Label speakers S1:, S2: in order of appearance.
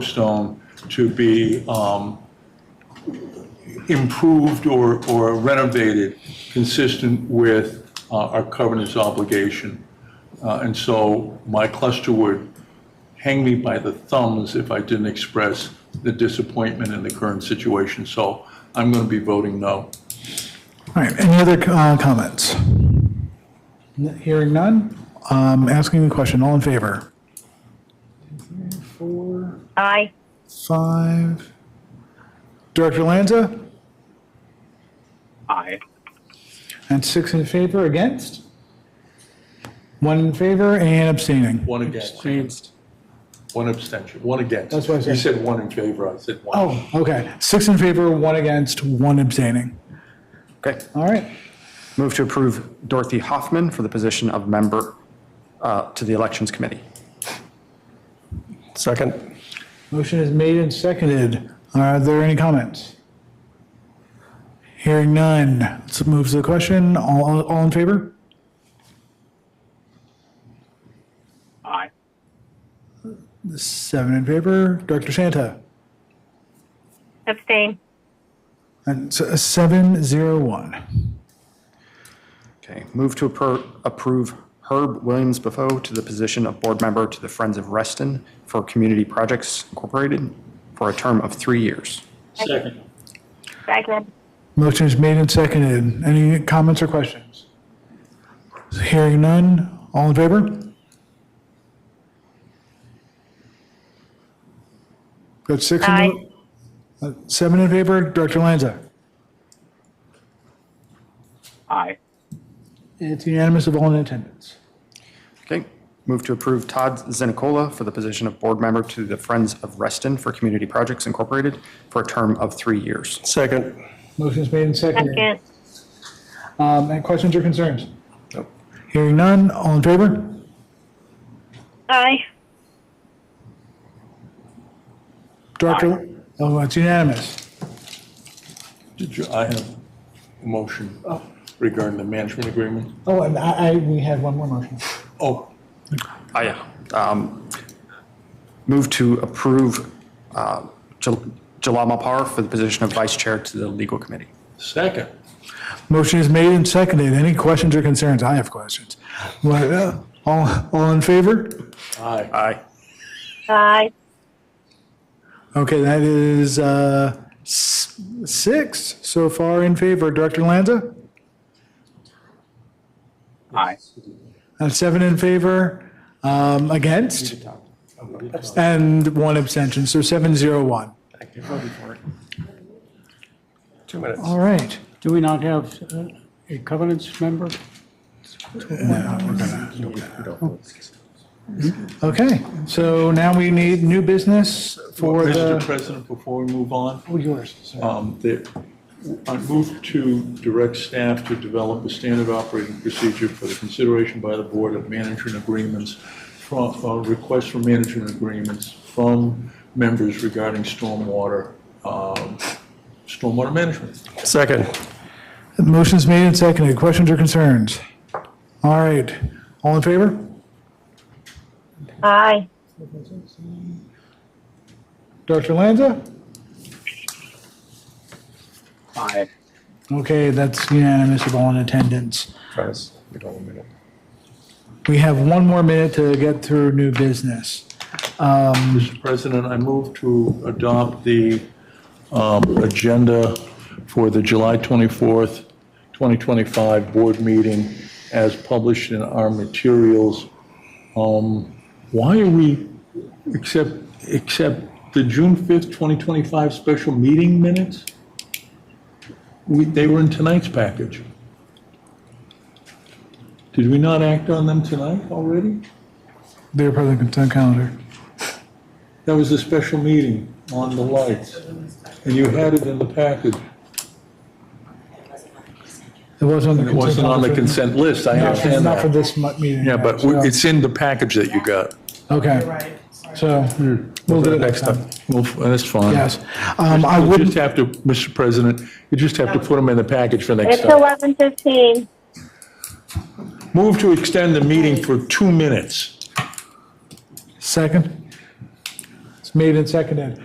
S1: soapstone to be um, improved or or renovated consistent with uh, our covenant's obligation. Uh, And so my cluster would hang me by the thumbs if I didn't express the disappointment in the current situation. So I'm going to be voting no.
S2: All right, any other uh, comments? N- Hearing none, um, asking the question, all in favor? Four,
S3: Aye.
S2: five. Director Lanza?
S4: Aye.
S2: And six in favor, against? One in favor and abstaining.
S1: One against. One abstention, one against.
S2: That's what I said.
S1: He said one in favor, I said one.
S2: Oh, okay, six in favor, one against, one abstaining.
S4: Okay.
S2: All right,
S4: Move to approve Dorothy Hoffman for the position of member uh, to the Elections Committee.
S5: Second.
S2: motion is made and seconded. Are there any comments? Hearing none, let's move to the question, all, all in favor?
S4: Aye.
S2: Seven in favor, Director Shanta,
S3: Abstain.
S2: and s- seven, zero, one.
S4: Okay. Move to appro- approve Herb Williams Buffo to the position of board member to the Friends of Reston for Community Projects Incorporated for a term of three years.
S1: Second.
S3: Second.
S2: Motion is made and seconded. Any comments or questions? Hearing none, all in favor? Got six, in- Uh,
S3: Aye.
S2: seven in favor, Director Lanza.
S4: Aye.
S2: It's unanimous of all in attendance.
S4: Okay. Move to approve Todd Zenicola for the position of board member to the Friends of Reston for Community Projects Incorporated for a term of three years.
S5: Second.
S2: Motion is made and seconded.
S3: Second.
S2: Um, Any questions or concerns?
S5: Nope.
S2: Hearing none, all in favor?
S3: Aye.
S2: Director, oh, it's unanimous.
S1: Did you, I have a motion regarding the management agreement?
S2: Oh, and I, I- we had one more motion.
S1: Oh,
S4: I um, move to approve uh, Jal- Jalal Mapar for the position of vice chair to the legal committee.
S1: second.
S2: Motion is made and seconded. Any questions or concerns? I have questions. What, uh, All, all in favor?
S1: Aye.
S4: Aye.
S3: Aye.
S2: Okay, that is uh, s- six so far in favor. Director Lanza?
S4: Aye.
S2: Uh, Seven in favor, um, against, and one abstention, so seven zero one.
S5: Two minutes.
S2: All right.
S6: Do we not have uh, a covenants member?
S2: Okay, so now we need new business for
S1: Mr.
S2: the,
S1: President, before we move on,
S2: oh, yours, sorry.
S1: um, the- I move to direct staff to develop a standard operating procedure for the consideration by the Board of Management Agreements, from, uh, requests for management agreements from members regarding stormwater, um, stormwater management.
S5: Second.
S2: Motion's made and seconded. Questions or concerns? All right, all in favor?
S3: Aye.
S2: Dr. Lanza?
S4: Aye.
S2: Okay, that's unanimous of all in attendance.
S5: Travis, we don't have a minute.
S2: We have one more minute to get through new business.
S1: Mr. President, I move to adopt the um, agenda for the July 24th, 2025 board meeting as published in our materials. Um, Why are we, except, except the June 5th, 2025 special meeting minutes? We, they were in tonight's package. Did we not act on them tonight already?
S2: They're part of the consent calendar.
S1: That was a special meeting on the lights, and you had it in the package.
S2: It wasn't on the
S1: It
S2: consent.
S1: wasn't on the
S2: calendar.
S1: consent list, I
S2: No, It's
S1: understand
S2: not for
S1: that.
S2: this mu- meeting.
S1: Yeah, but we- it's in the package that you got.
S2: Okay, so we'll do it next time.
S1: Well, f- that's fine.
S2: Yes. Um, I
S1: You
S2: wouldn't,
S1: just have to, Mr. President, you just have to put them in the package for next
S3: It's
S1: time.
S3: eleven fifteen.
S1: Move to extend the meeting for two minutes.
S2: second? It's made and seconded.